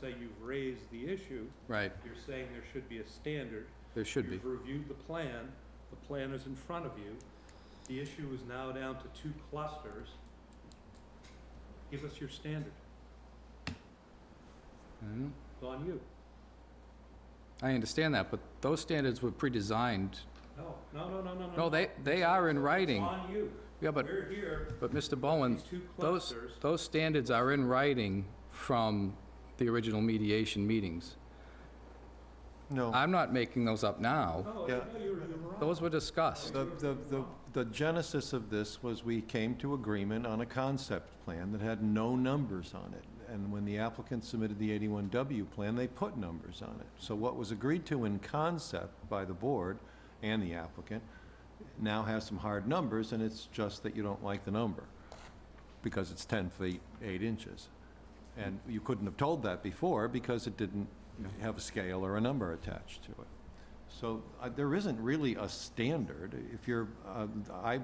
say you've raised the issue, right, you're saying there should be a standard. there should be. You've reviewed the plan, the plan is in front of you. The issue is now down to two clusters. Give us your standard, Mhm. it's on you. I understand that, but those standards were pre-designed. No, no, no, no, no, no. No, they, they are in It's writing. on you. Yeah, but, We're here, but Mr. Bowen, these two those, clusters. those standards are in writing from the original mediation meetings. No, I'm not making those up now. No, Oh, I Yeah. know you're, you're wrong. Those were discussed. the, the, the- the genesis of this was we came to agreement on a concept plan that had no numbers on it. And when the applicant submitted the 81W plan, they put numbers on it. So what was agreed to in concept by the board and the applicant now has some hard numbers, and it's just that you don't like the number, because it's 10 feet, 8 inches. And you couldn't have told that before, because it didn't have a scale or a number attached to it. So uh, there isn't really a standard. If you're, uh, I,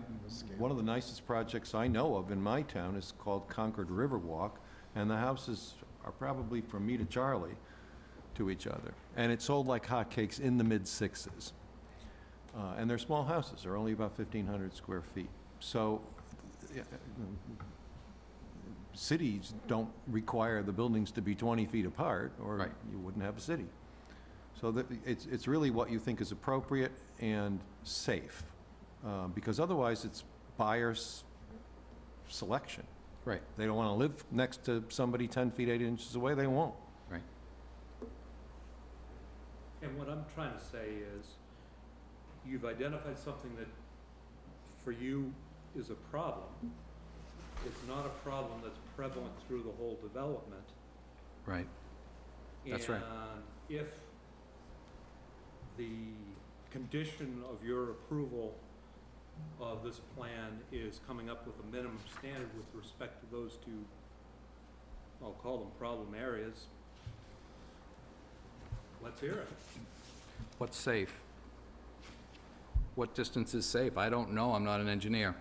one of the nicest projects I know of in my town is called Concord Riverwalk, and the houses are probably from me to Charlie to each other. And it sold like hotcakes in the mid-sixes. Uh, And they're small houses, they're only about 1,500 square feet. So uh, cities don't require the buildings to be 20 feet apart, or Right. you wouldn't have a city. So that, it's, it's really what you think is appropriate and safe, uh, because otherwise it's buyer's selection. Right. They don't want to live next to somebody 10 feet, 8 inches away, they won't. And what I'm trying to say is, you've identified something that for you is a problem. It's not a problem that's prevalent through the whole development. Right. That's right. And if the condition of your approval of this plan is coming up with a minimum standard with respect to those two, I'll call them problem areas, let's hear it. What's safe? What distance is safe? I don't know, I'm not an engineer.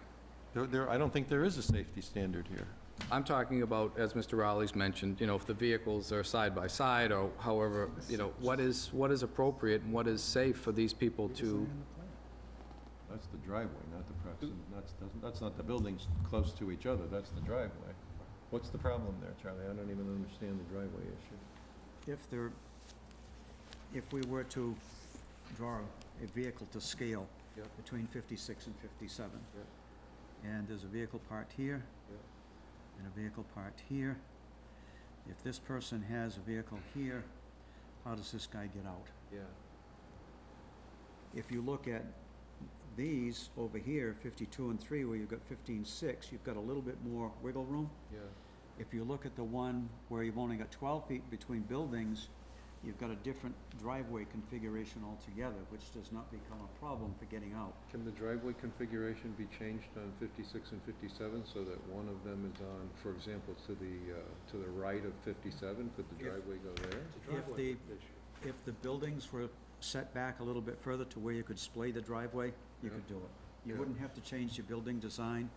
There, there, I don't think there is a safety standard here. I'm talking about, as Mr. Rowley's mentioned, you know, if the vehicles are side by side or however, you know, what is, what is appropriate and what is safe for these people to, That's the driveway, not the proximity, that's, that's not the buildings close to each other, that's the driveway. What's the problem there, Charlie? I don't even understand the driveway issue. If there, if we were to draw a vehicle to scale Yep. between 56 and 57, Yep. and there's a vehicle part here, Yep. and a vehicle part here, if this person has a vehicle here, how does this guy get out? Yeah. If you look at these over here, 52 and 3, where you've got 15.6, you've got a little bit more wiggle room. Yeah. If you look at the one where you've only got twelve feet between buildings, you've got a different driveway configuration altogether, which does not become a problem for getting out. Can the driveway configuration be changed on 56 and 57 so that one of them is on, for example, to the, uh, to the right of 57? Could the If- driveway go there? It's a If driveway the- issue. If the buildings were set back a little bit further to where you could splay the driveway, you could do it. You Yeah. wouldn't have to change your building design.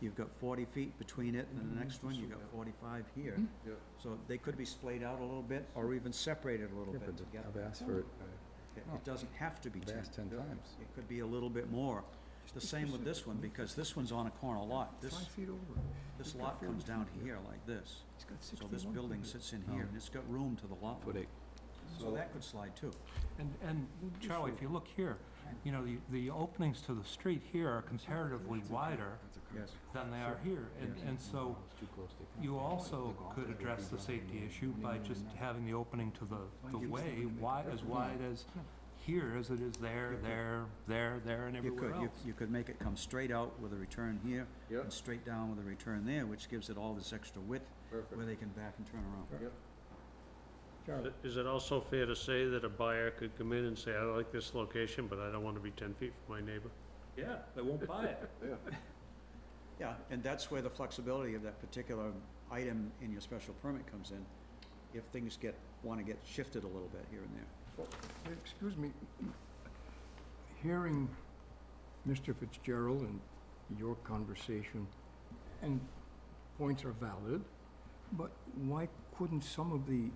You've got forty feet between it and the next one, you've got forty-five here. Yeah. So they could be splayed out a little bit or even separated a little bit together. I've asked for it, It it doesn't have to be I've ten. asked 10 times. It could be a little bit more. The same with this one, because this one's on a corner lot. This, feet over. this lot comes down here like this. He's got So this building sits in here, and it's got room to the lot. Foot eight. So that could slide too. And, and Charlie, if you look here, you know, the, the openings to the street here are comparatively wider Yes. than they are here. And, and so you also could address the safety issue by just having the opening to the, the way wide, as wide as here as it is there, there, there, there, and You could, everywhere you, else. you could make it come straight out with a return here, Yeah. and straight down with a return there, which gives it all this extra width, where they can back and turn around. Is it also fair to say that a buyer could come in and say, I like this location, but I don't want to be ten feet from my neighbor? Yeah, they won't buy it. Yeah, and that's where the flexibility of that particular item in your special permit comes in, if things get, wanna get shifted a little bit here and there. Excuse me, hearing Mr. Fitzgerald and your conversation, and points are valid, but why couldn't some of the